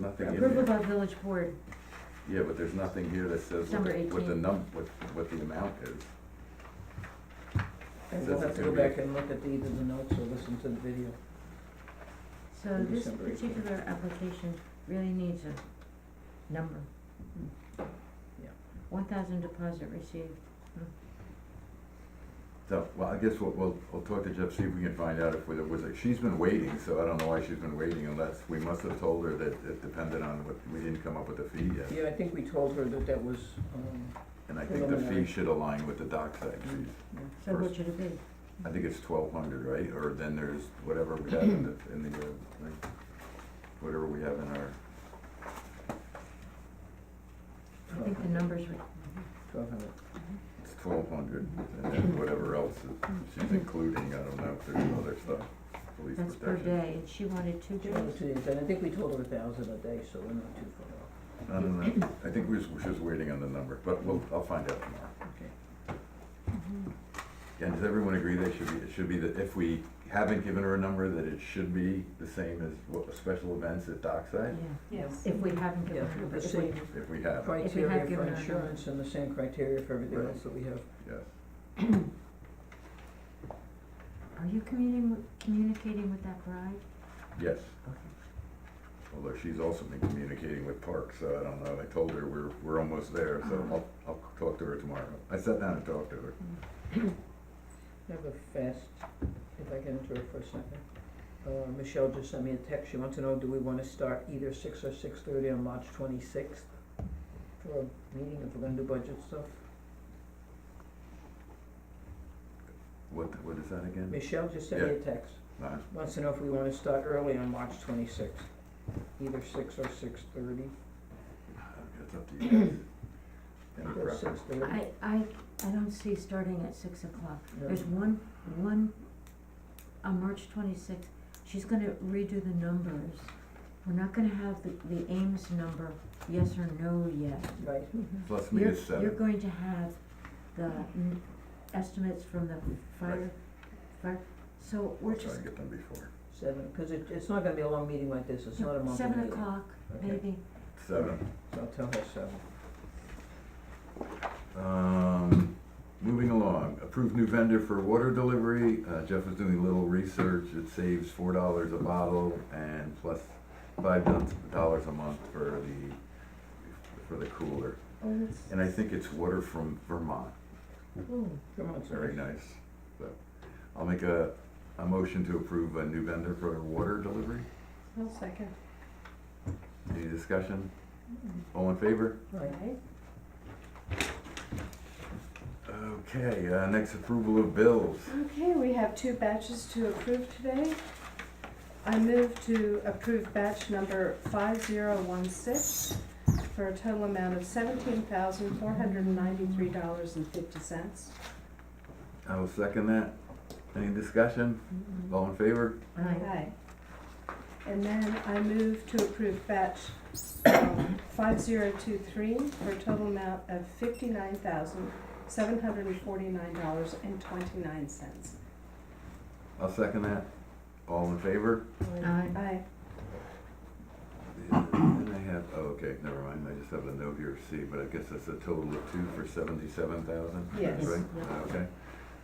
nothing in Approval here. by village board, Yeah, but there's nothing here that says what Number the- what the 18. num, what, what the amount is. And Says we'll have it's to gonna go be- back and look at either the notes or listen to the video. so this December eighteenth. particular application really needs a number. Yeah. One thousand deposit received, So, well, I guess we'll, we'll, we'll talk to Jeff, see if we can find out if there was a, she's been waiting, so I don't know why she's been waiting unless, we must have told her that it depended on what, we didn't come up with a fee yet. Yeah, I think we told her that that was, um, And I think the fee Preliminary. should align with the dockside Mm-hmm. fees. yeah. so what First. should it be? I think it's twelve hundred, right? Or then there's whatever we have in the, in the, uh, like, whatever we have in our, I think the numbers were, Twelve hundred. it's twelve hundred, and then whatever else is, she's including, I don't know, if there's other stuff, police Mm-hmm. that's per protection. day, and she wanted two Two hundred days. days, and I think we told her a thousand a day, so we're not too far off. I don't know, I think we're just, we're just waiting on the number, but we'll, I'll find out tomorrow. Okay. And does everyone agree that should be, it should be that if we haven't given her a number, that it should be the same as what, special events at Yeah, Dockside? Yes. if we haven't given Yeah, her, the but if we, same If we have, it, Criteria for given her a insurance and the same criteria for everything Right. else that we have. yes. are you communicating, with- communicating with that bride? Yes, Okay. although she's also been communicating with Park, so I don't know, I told her we're, we're almost there, so Uh-huh. I'll, I'll talk to her tomorrow. I sat down and talked to her. I have a fast, if I can interrupt for a second. Uh, Michelle just sent me a text, she wants to know, do we wanna start either six or six thirty on March twenty-sixth for a meeting if we're gonna do budget stuff? What, what is that again? Michelle just sent me a text, Uh, wants to know if we wanna start early on March twenty-sixth, either six or six thirty. It's up to you guys. Any Six preference? thirty. I, I, I don't see starting at six o'clock. No. There's one, one, on March twenty-sixth, she's gonna redo the numbers. We're not gonna have the, the Ames number, yes or no yet. Right, Mm-hmm. So let's meet You're, at you're seven. going to have the n- estimates from the fire, fire, so I'll we're try just, and get them before. seven, cause it, it's not gonna be a long meeting like this, it's not a month meeting. seven o'clock, Okay. maybe. Seven. So I'll tell her seven. Um, moving along, approved new vendor for water delivery. Uh, Jeff was doing a little research. It saves four dollars a bottle and plus five do- dollars a month for the, for the cooler. And I think it's water from Vermont. Come on, Very sorry. nice. So, I'll make a, a motion to approve a new vendor for water delivery. I'll second. Any discussion? All in favor? Right. Okay, uh, next approval of bills. Okay, we have two batches to approve today. I move to approve batch number five zero one six for a total amount of seventeen thousand four hundred and ninety-three dollars and fifty cents. I will second that. Any discussion? All in favor? Mm-hmm. Aye. And then I move to approve batch um, five zero two three for a total amount of fifty-nine thousand seven hundred and forty-nine dollars and twenty-nine cents. I'll second that. All in favor? Aye. Aye. Then I have, oh, okay, never mind, I just have a note here, C, but I guess that's a total of two for seventy-seven thousand? Yes. Right, Yeah. okay.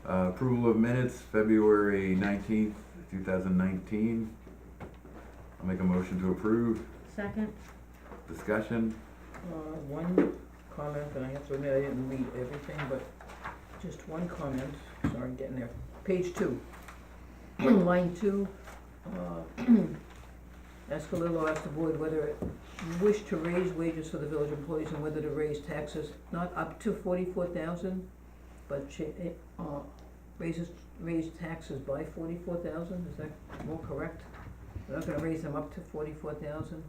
Uh, approval of minutes, February nineteenth, two thousand nineteen. I'll make a motion to approve. Second, Discussion? Uh, one comment, and I have to admit, I didn't read everything, but just one comment, sorry, I'm getting there. Page two, line two, uh, Escalillo asked the board whether it wished to raise wages for the village employees and whether to raise taxes, not up to forty-four thousand, but cha- eh, uh, raises, raise taxes by forty-four thousand, is that more correct? We're not gonna raise them up to forty-four thousand?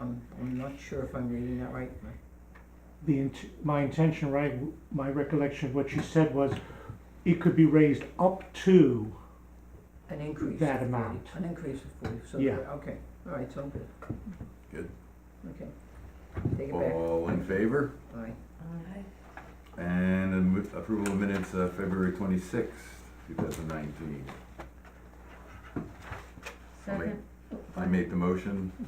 I'm, I'm not sure if I'm reading that right. the, int- my intention, right, my recollection of what she said was, it could be raised up to, An increase. That of 40 amount. An increase of forty, so, Yeah. okay, all right, so good. Good. Okay. Take it back, All in favor? aye. aye. And a mo- approval of minutes, uh, February twenty-sixth, two thousand nineteen. I'll make- Second, I made the motion.